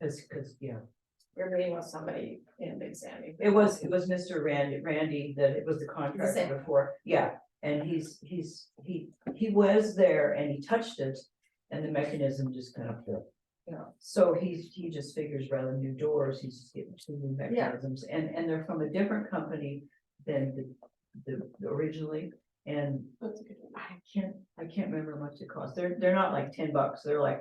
Cause, cause, yeah, We're meeting with somebody in Big Sandy. it was, it was Mr. Randy, Randy, that it was the same contractor one. before, yeah, and he's, he's, he, he was there and he touched it. And the mechanism just kind of fell. Yeah. So he's, he just figures rather than new doors, he's just getting two new mechanisms, and, and they're from a different company than the, the- the originally. And That's a good one. I can't, I can't remember how much it cost, they're, they're not like ten bucks, they're like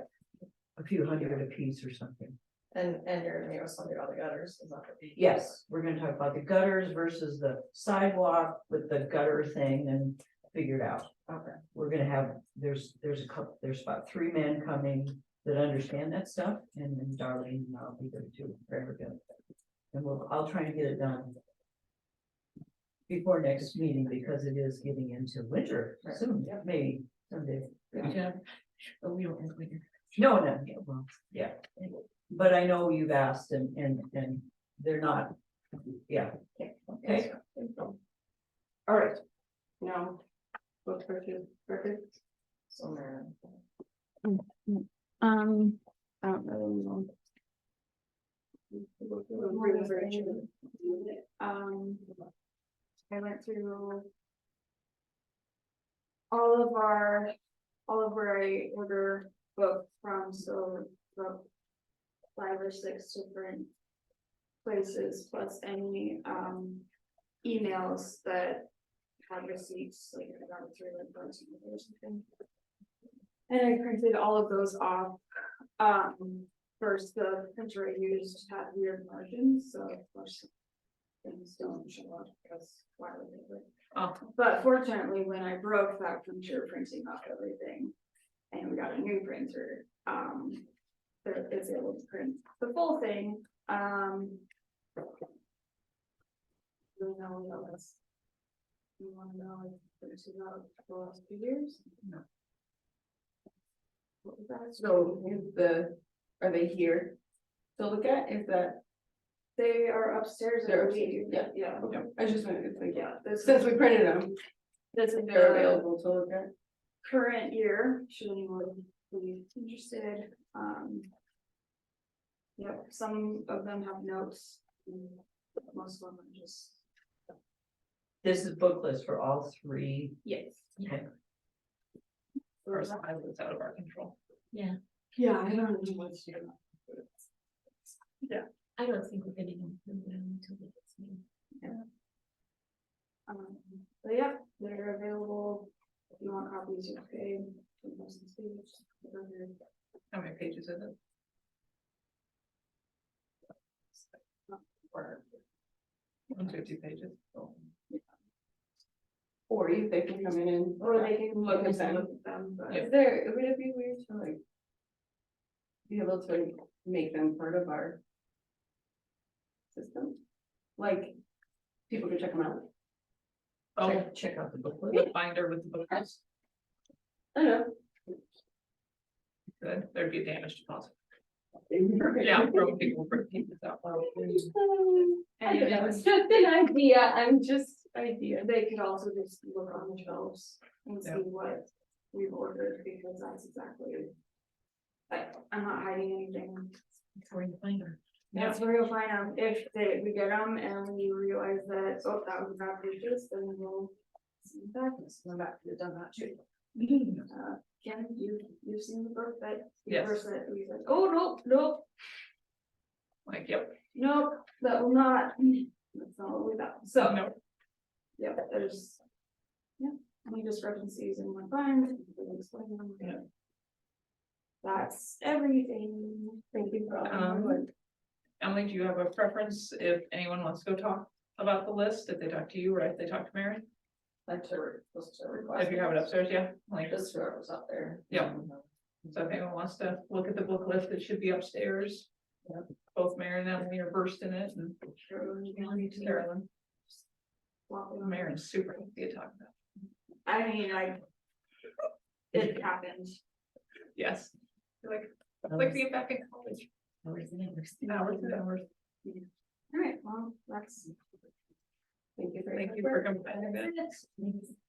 a few hundred apiece or something. And, and you're gonna meet with somebody about the gutters, is that what you- Yes, we're gonna talk about the gutters versus the sidewalk with the gutter thing and figure it out. Okay, We're gonna have, there's, there's a couple, there's about three men coming that understand that stuff and then Darlene and I'll be there too, very good. And we'll, I'll try and get it done. Before next meeting, because it is getting into winter Right. soon, Yep. maybe someday. good job. But we don't end with No, no, yeah, well, yeah, but I know you've asked and, and, and they're not, yeah, Okay. All right, now, what's Richard, Richard? Somewhere. Um, I don't know. Um. I went through. All of our, all of where I order book from, so from. Five or six different. Places plus any um emails that had receipts, like I got through like those or something. And I printed all of those off. Um, first, the printer I used had weird margins, so of course. Things don't show up because why would they? would? Oh. But fortunately, when I broke that printer, printing off everything. And we got a new printer, um, that is able to print the full thing, um. You know, we know this. You wanna know, if there's about the last few years? No. What was that? So is the, are they here to look at, is that, They are upstairs, I They're believe. upstairs, Yeah. okay, I just wanted to think, Yeah, this since is, we printed them, this is they're the available to look at. current year, should anyone be interested, um. Yep, some of them have notes, and most of them are just, This is book list for all three. yes. Okay. First, I was out of our control. Yeah, I don't know what to do. I don't think we're getting them until we get some. Um, but yeah, they're available, if you want copies, you pay. for most of the students, whatever. How many pages is it? Or. One fifty pages. Or you, they can come in and. Or they can Look look at at them. them, but. Is there, would it be weird to like? Be able to make them part of our. System? Like, people can check them out. Oh, Check- Check out the book list. the binder with the books, I don't good, there'd be damage to possible. know. Yeah, from people breaking this out. Oh, I don't know, And it's just an idea, I'm just idea. they could also just look on the shelves and see Yeah. what we've ordered, because that's exactly. Like, I'm not hiding anything, We're in the binder. that's where you'll find out if they, we get them and we realize that, oh, that was not purchased, then we'll. send it Back, Come back, you've done that too. uh, Ken, you, you've seen the book that. the Yes. person that we said, oh, nope, nope, Like, yep, nope, that will not, that's not what we got, so. so, no, Yeah, there's. Yeah, any discrepancies in my mind. Yeah. That's everything. Thank you for all your Um, work. Emily, do you have a preference if anyone wants to go talk about the list, if they talk to you or if they talk to Mary? That's a, that's a request. If you have it upstairs, yeah, like, Just whoever's up there. Yeah. So if anyone wants to look at the book list, it should be upstairs. Yep. Both Mary and Emily are versed in it and Everyone's been Carolyn, walking on. Mary's super happy to talk about. I mean, I. It happened. it. Yes. Like, like being back in college, oh, Or is it? hours and hours. All right, well, that's. Thank you very much. Thank you for coming. back. That's it.